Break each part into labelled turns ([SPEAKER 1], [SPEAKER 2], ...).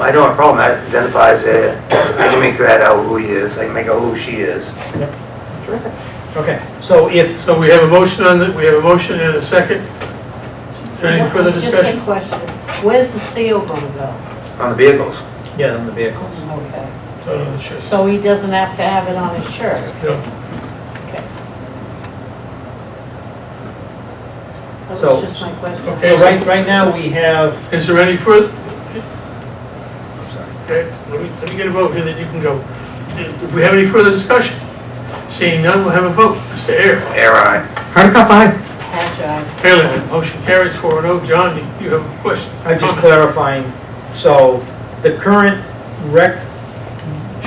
[SPEAKER 1] I don't have a problem, that identifies it, I can make that out who he is, I can make out who she is.
[SPEAKER 2] Okay, so if,
[SPEAKER 3] So we have a motion on the, we have a motion and a second. Is there any further
[SPEAKER 4] Just a
[SPEAKER 3] discussion?
[SPEAKER 4] question, where's the seal gonna go?
[SPEAKER 1] On the vehicles,
[SPEAKER 2] yeah, on the vehicles.
[SPEAKER 4] Okay,
[SPEAKER 3] No, no, it's just-
[SPEAKER 4] so he doesn't have to have it on his shirt,
[SPEAKER 3] no.
[SPEAKER 4] okay. That
[SPEAKER 2] So-
[SPEAKER 4] was just my question.
[SPEAKER 3] Okay.
[SPEAKER 2] So right, right now, we have,
[SPEAKER 3] Is there any further,
[SPEAKER 2] I'm sorry.
[SPEAKER 3] okay, let me, let me get a vote here, then you can go. If we have any further discussion, seeing none, we'll have a vote. Mr. Air,
[SPEAKER 1] air eye.
[SPEAKER 2] Hardikoff, aye.
[SPEAKER 4] Hatch eye.
[SPEAKER 3] Fairland, motion carries four and oh. John, you have a question?
[SPEAKER 2] I'm just clarifying, so the current rec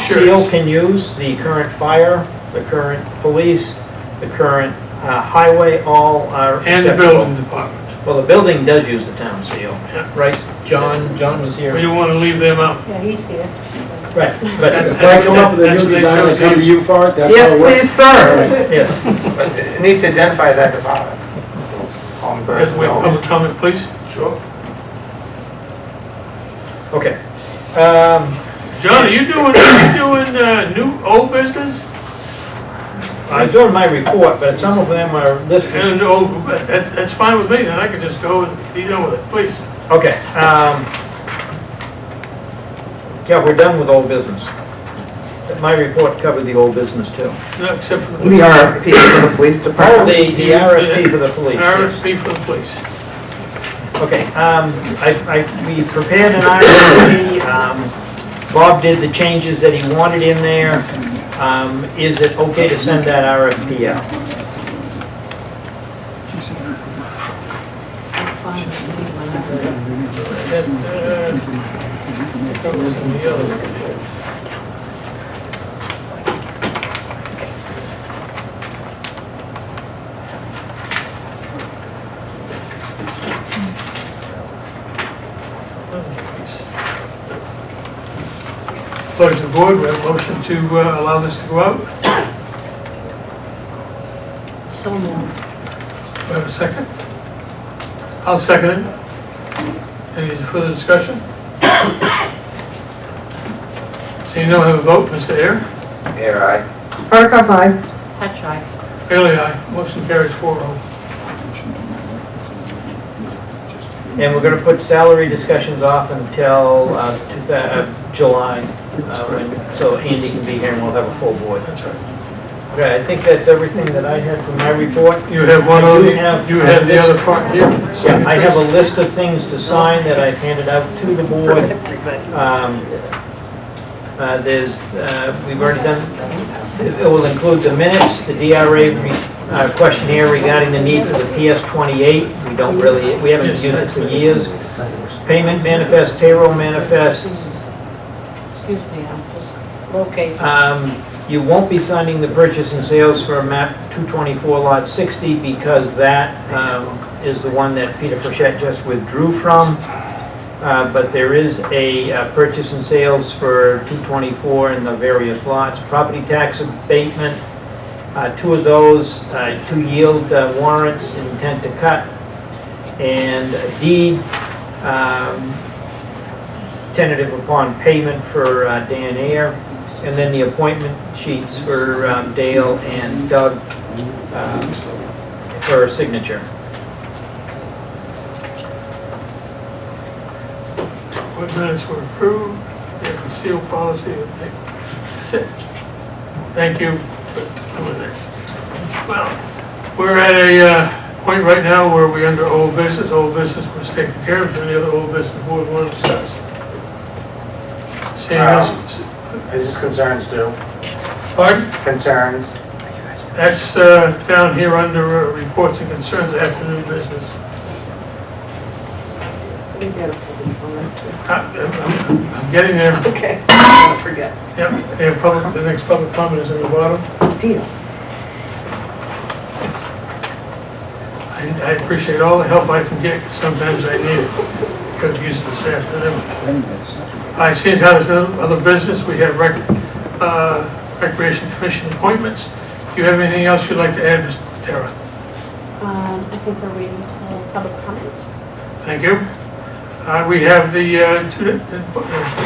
[SPEAKER 3] Sure.
[SPEAKER 2] uh, seal can use, the current fire, the current police, the current uh, highway, all are.
[SPEAKER 3] And the
[SPEAKER 2] acceptable.
[SPEAKER 3] building department.
[SPEAKER 2] Well, the building does use the town seal,
[SPEAKER 3] Yeah.
[SPEAKER 2] right? John, John was here.
[SPEAKER 3] We don't want to leave them out.
[SPEAKER 4] Yeah, he's here.
[SPEAKER 2] Right,
[SPEAKER 3] That's-
[SPEAKER 2] but,
[SPEAKER 5] If I come up with a
[SPEAKER 3] That's what
[SPEAKER 5] new
[SPEAKER 3] they
[SPEAKER 5] design, I
[SPEAKER 3] chose
[SPEAKER 5] come to
[SPEAKER 3] you.
[SPEAKER 5] you for it, that's how
[SPEAKER 6] Yes,
[SPEAKER 5] it works.
[SPEAKER 6] please, sir.
[SPEAKER 2] yes,
[SPEAKER 1] But it needs to identify that department. On the-
[SPEAKER 3] As we have public comment, please. Sure.
[SPEAKER 2] okay. Um,
[SPEAKER 3] John, are you doing, are you doing uh, new, old business?
[SPEAKER 2] I'm doing my report, but some of them are listed.
[SPEAKER 3] And, oh, that's, that's fine with me, then I could just go and be done with it, please.
[SPEAKER 2] Okay, um, yeah, we're done with old business. But My report covered the old business too.
[SPEAKER 3] No, Except for the
[SPEAKER 6] The
[SPEAKER 3] police.
[SPEAKER 6] RFP for the police
[SPEAKER 2] Oh,
[SPEAKER 6] department.
[SPEAKER 2] the, the RFP for the police, yes.
[SPEAKER 3] RFP for the police.
[SPEAKER 2] Okay, um, I, I, we prepared an RFP, um, Bob did the changes that he wanted in there. Um, is it okay to send that RFP out?
[SPEAKER 4] I'm fine with me when I go.
[SPEAKER 3] That, uh, covers some of the other ones. Pleasure of the board, we have a motion to uh, allow this to go out. We
[SPEAKER 4] So moved.
[SPEAKER 3] have a second. I'll second it. Any further discussion? Seeing no, have a vote, Mr. Air.
[SPEAKER 1] Air eye.
[SPEAKER 6] Hardikoff, aye.
[SPEAKER 4] Hatch eye.
[SPEAKER 3] Bailey, aye. Motion carries four oh.
[SPEAKER 2] And we're gonna put salary discussions off until, uh, two thou- uh, July, uh, when, so Andy can be here and we'll have a full board.
[SPEAKER 3] That's right.
[SPEAKER 2] Okay, I think that's everything that I had from my report.
[SPEAKER 3] You have one
[SPEAKER 2] I do
[SPEAKER 3] on, the-
[SPEAKER 2] have-
[SPEAKER 3] you have the other part here.
[SPEAKER 2] Yeah, I have a list of things to sign that I've handed out to the board. Um, uh, There's, uh, we've already done, it will include the minutes, the DRA re- uh, questionnaire regarding the need for the PS 28. We don't really, we haven't used it for years. Payment manifest, payroll manifest.
[SPEAKER 4] Excuse me, I'm just locating.
[SPEAKER 2] Um, You won't be signing the purchase and sales for map 224 lot 60 because that um, is the one that Peter Frechette just withdrew from. Uh, But there is a uh, purchase and sales for 224 and the various lots, property tax abatement, uh, two of those, uh, two yield uh, warrants, intent to cut, and a deed, um, tentative upon payment for uh, Dan Ayer, and then the appointment sheets for um, Dale and Doug um, for signature.
[SPEAKER 3] What minutes were approved, the concealed policy, I think. that's it. Thank you. for doing that. Well, we're at a uh, point right now where we're under old business, old business was taken care of, any other old business board want to discuss? Seeing us,
[SPEAKER 1] Business Um, concerns do.
[SPEAKER 3] pardon,
[SPEAKER 1] Concerns.
[SPEAKER 3] that's uh, down here under uh, reports and concerns after new business.
[SPEAKER 6] We gotta put it on that too.
[SPEAKER 3] Uh, I'm I'm getting there.
[SPEAKER 6] Okay, don't forget.
[SPEAKER 3] Yep, they have public, the next public comment is at the bottom.
[SPEAKER 6] Deal.
[SPEAKER 3] I I appreciate all the help I can get, 'cause sometimes I need it, because of use this afternoon. I see how there's no other business, we have rec, uh, recreation commission appointments. Do you have anything else you'd like to add, Mr. Terra?
[SPEAKER 4] Um, I think we're waiting till public comment.
[SPEAKER 3] Thank you. Uh, we have the, uh, two, the